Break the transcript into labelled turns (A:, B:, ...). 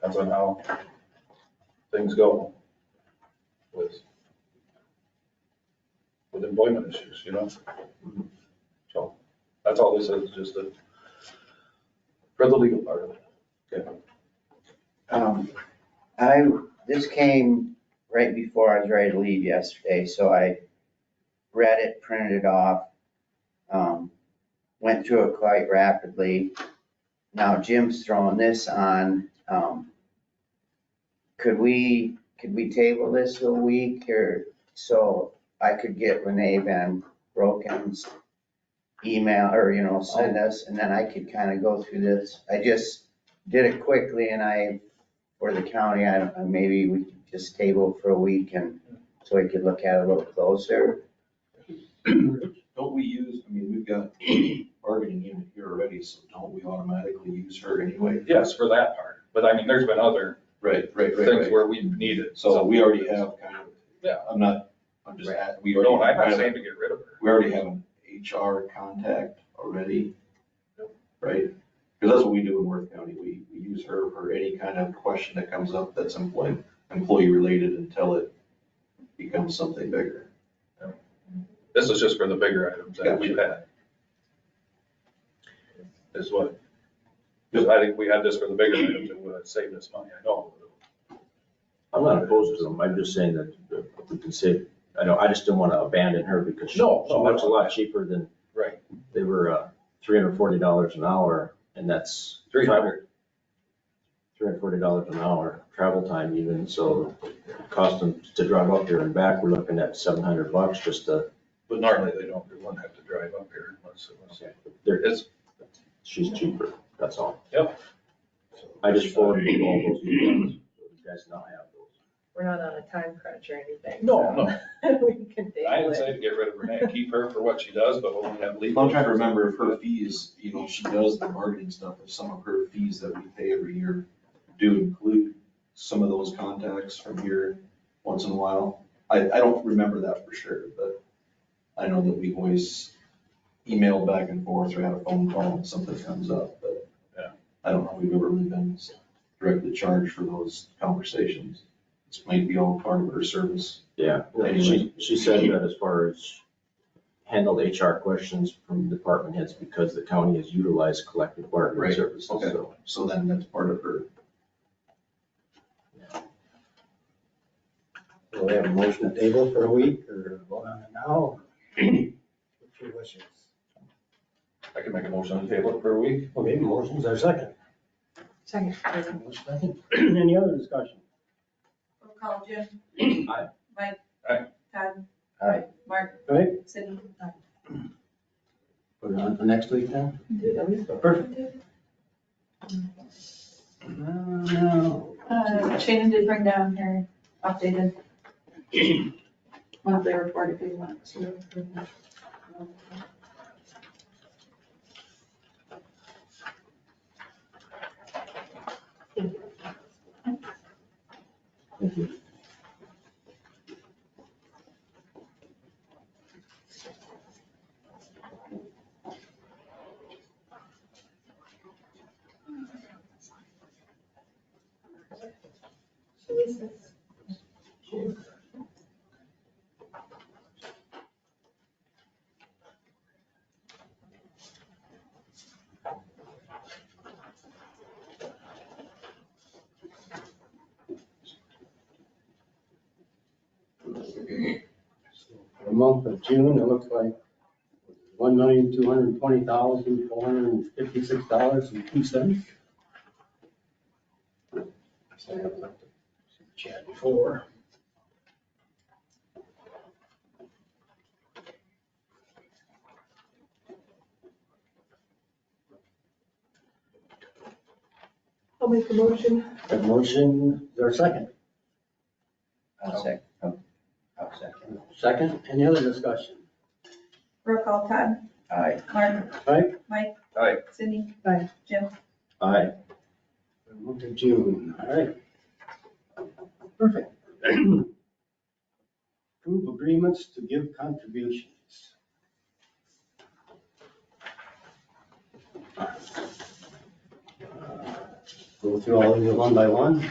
A: depends on how things go with, with employment issues, you know? So, that's all this is, just the, for the legal part of it.
B: Um, I, this came right before I was ready to leave yesterday, so I read it, printed it off, um, went through it quite rapidly. Now Jim's throwing this on, um, could we, could we table this a week or so I could get Renee Van Broken's email or, you know, send us, and then I could kind of go through this. I just did it quickly and I for the county, I don't, maybe we could just table for a week and so we could look at it a little closer.
C: Don't we use, I mean, we've got bargaining unit here already, so don't we automatically use her anyway?
A: Yes, for that part, but I mean, there's been other
C: Right, right,
A: things where we have needed.
C: So we already have kind of.
A: Yeah.
C: I'm not, I'm just, at- we already.
A: No, I'm not
C: have-
A: saying to get rid of her.
C: We already have an HR contact already, right? Because that's what we do in Worth County. We, we use her for any kind of question that comes up that's employee, employee related until it becomes something bigger.
A: This is just for the bigger items that we've had. Is what. Because I think we had this for the bigger items, it would have saved us money, I know.
D: I'm not opposed to them, I'm just saying that if we can save, I know, I just didn't want to abandon her because she, she
A: No, no, I
D: was a lot cheaper than,
A: Right.
D: they were, uh, three hundred and forty dollars an hour, and that's.
A: Three hundred.
D: Three hundred and forty dollars an hour, travel time even, so it cost them to drive up here and back, we're looking at seven hundred bucks just to,
A: But normally they don't, they wouldn't have to drive up here unless it was.
D: there,
A: It's,
D: she's cheaper, that's all.
A: Yep.
D: I just forwarded you all those emails, so you guys now have those.
E: We're not on a time crunch or anything.
A: no, no,
E: so We can
A: I
E: table
A: didn't
E: it.
A: say to get rid of Renee, keep her for what she does, but when we have legal.
C: I'm trying to remember if her fees, you know, she does the bargaining stuff, if some of her fees that we pay every year do include some of those contacts from here once in a while. I, I don't remember that for sure, but I know that we always email back and forth or have a phone call when something comes up, but
A: Yeah.
C: I don't know if we've ever really been directly charged for those conversations. This might be all part of her service.
D: Yeah, she, she said that as far as handled HR questions from department heads because the county has utilized collective bargaining
C: Right,
D: services,
C: okay.
D: so.
C: So then that's part of her.
F: Do we have a motion to table for a week or vote on it now? or What's your wishes?
A: I can make a motion on the table for a week.
F: Okay, motion's our second.
E: Second.
F: Motion second. Any other discussion?
G: Roll call, Jim.
D: Aye.
G: Mike.
A: Aye.
G: Todd.
B: Aye.
G: Mark.
F: All right,
G: Sydney.
F: put it on for next week then? Perfect. No.
G: Uh, Shannon did bring down her updated monthly report if you want to.
F: For the month of June, it looks like one million, two hundred and twenty thousand, four hundred and fifty-six dollars and two cents. Chat before.
E: I'll make the motion.
F: A motion, is there a second?
B: I'll sec, I'll I'll second.
F: Second, any other discussion?
G: Roll call, Todd.
B: Aye.
G: Mark.
F: Aye.
G: Mike.
A: Aye.
G: Sydney.
E: Aye.
G: Jim.
D: Aye,
F: Month of June, all right. Perfect. Approve agreements to give contributions. Go through all of them one by one.